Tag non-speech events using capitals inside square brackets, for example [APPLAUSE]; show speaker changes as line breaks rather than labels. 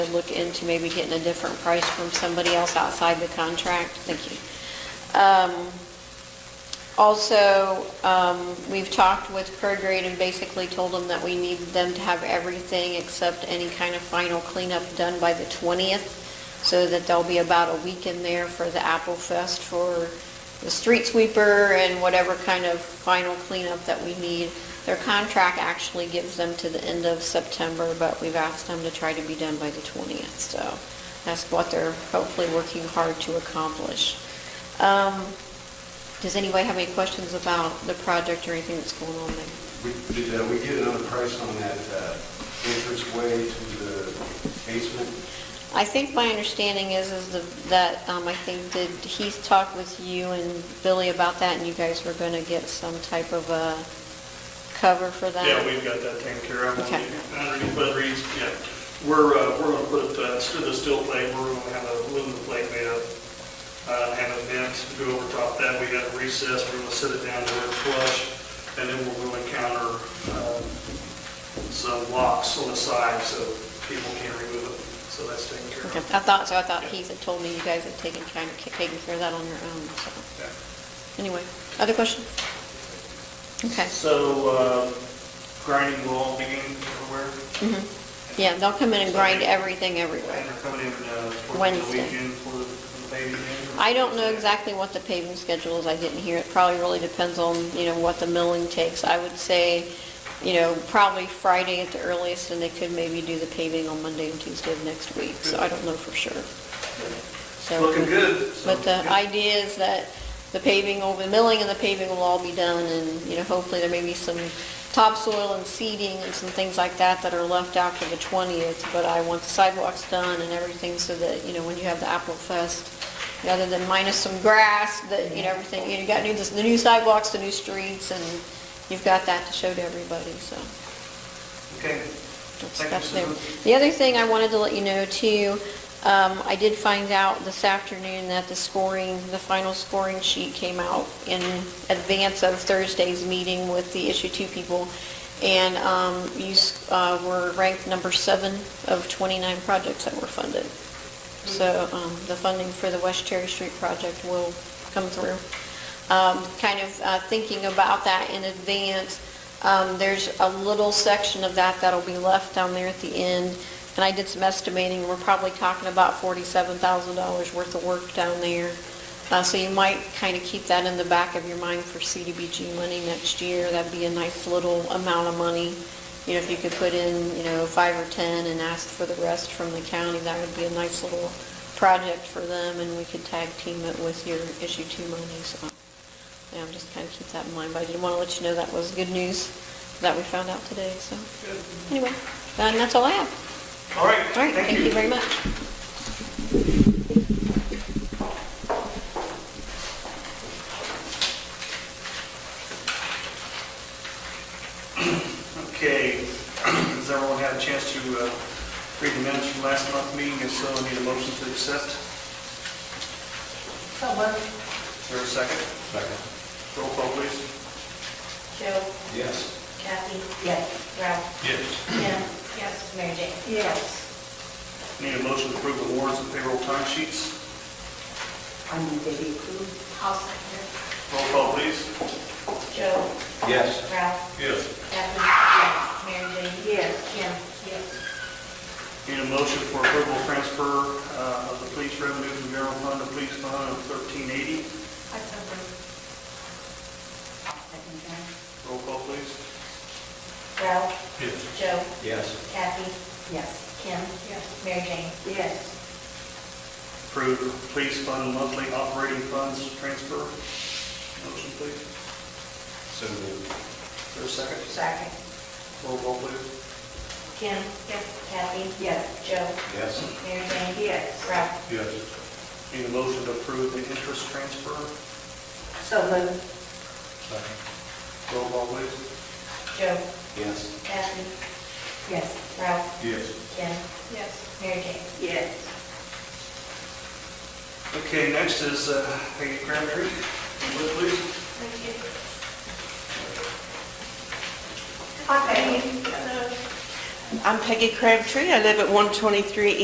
look into maybe getting a different price from somebody else outside the contract. Thank you. Um, Also, um, we've talked with Prograde and basically told them that we need them to have everything except any kind of final cleanup done by the 20th, so that there'll be about a week in there for the Apple Fest for the street sweeper and whatever kind of final cleanup that we need. Their contract actually gives them to the end of September, but we've asked them to try to be done by the 20th, so that's what they're hopefully working hard to accomplish. Um, Does anybody have any questions about the project or anything that's going on there?
We- Did uh, we get another price on that uh, entrance way to the basement?
I think my understanding is, is the- that, um, I think, did Heath talk with you and Billy about that, and you guys were going to get some type of a cover for that?
Yeah, we've got that taken care of.
Okay.
Underneath Bud Reed's, yeah. We're, uh, we're gonna put, uh, instead of steel plate, we're gonna have a aluminum plate made up, uh, have a vent to go over top that. We got a recess, we're gonna set it down to where it's flush, and then we're gonna counter, um, some locks on the side so people can't remove it. So that's taken care
Okay,
of.
I thought, so I thought Heath had told me you guys had taken, kind of taken care of that on your own, so,
Yeah.
anyway, other questions? Okay,
So, uh, grinding will all begin everywhere?
Mm-hmm. yeah, they'll come in and grind everything everywhere.
And they're coming in, uh, for the
Wednesday.
weekend for the for the baby? game?
I don't know exactly what the paving schedule is, I didn't hear, it probably really depends on, you know, what the milling takes. I would say, you know, probably Friday at the earliest, and they could maybe do the paving on Monday and Tuesday of next week, so I don't know for sure. So-
Looking good. so-
But the idea is that the paving, will- the milling and the paving will all be done, and, you know, hopefully there may be some topsoil and seeding and some things like that that are left after the 20th, but I want the sidewalks done and everything so that, you know, when you have the Apple Fest, you know, other than minus some grass, that, you know, everything, you know, you got new, the new sidewalks, the new streets, and you've got that to show to everybody, so.
Okay.
That's-
Thank you,
that's there.
Susan.
The other thing I wanted to let you know too, um, I did find out this afternoon that the scoring, the final scoring sheet came out in advance of Thursday's meeting with the issue two people. And um, you s- uh, were ranked number seven of 29 projects that were funded. So um, the funding for the West Cherry Street project will come through. Um, Kind of uh, thinking about that in advance, um, there's a little section of that that'll be left down there at the end, and I did some estimating, we're probably talking about $47,000 worth of work down there. Uh, So you might kind of keep that in the back of your mind for CDBG money next year. That'd be a nice little amount of money. You know, if you could put in, you know, five or 10 and ask for the rest from the county, that would be a nice little project for them, and we could tag team it with your issue two money, so. Yeah, I'm just kind of keep that in mind, but I did want to let you know that was good news that we found out today, so. Anyway, uh, and that's all I have.
All right,
All right, thank you very much.
Okay, [CLEARS THROAT] has everyone had a chance to uh, read the minutes from last month's meeting? If so, I need a motion to accept. So Is there a second?
Second.
Roll call, please.
Joe,
Yes.
Kathy? Yes. Ralph?
Yes.
Jim? Yes. Mary Jane? Yes.
Need a motion to approve the warrants and payroll time sheets.
I move that we approve. I'll second.
Roll call, please.
Joe,
Yes.
Ralph,
Yes.
Kathy? Yes. Mary Jane? Yes. Jim? Yes.
Need a motion for approval of transfer uh, of the police revenue from general fund to police fund of 1380.
I so Second
Roll call, please.
Ralph,
Yes.
Joe,
Yes.
Kathy? Yes. Kim? Yes. Mary Jane? Yes.
Approve police fund monthly operating funds transfer. Motion, please.
So moved.
Is there a second?
Second.
Roll call, please.
Kim? Yes. Kathy? Yes. Joe?
Yes.
Mary Jane? Yes. Ralph?
Yes.
Need a motion to approve the interest transfer.
So moved.
Second.
Roll call, please.
Joe,
Yes.
Kathy? Yes. Ralph?
Yes.
Kim? Yes. Mary Jane? Yes.
Okay, next is uh, Peggy Crabtree. Would you Please.
Thank you. Hi, Peggy.
I'm Peggy Crabtree. I live at 123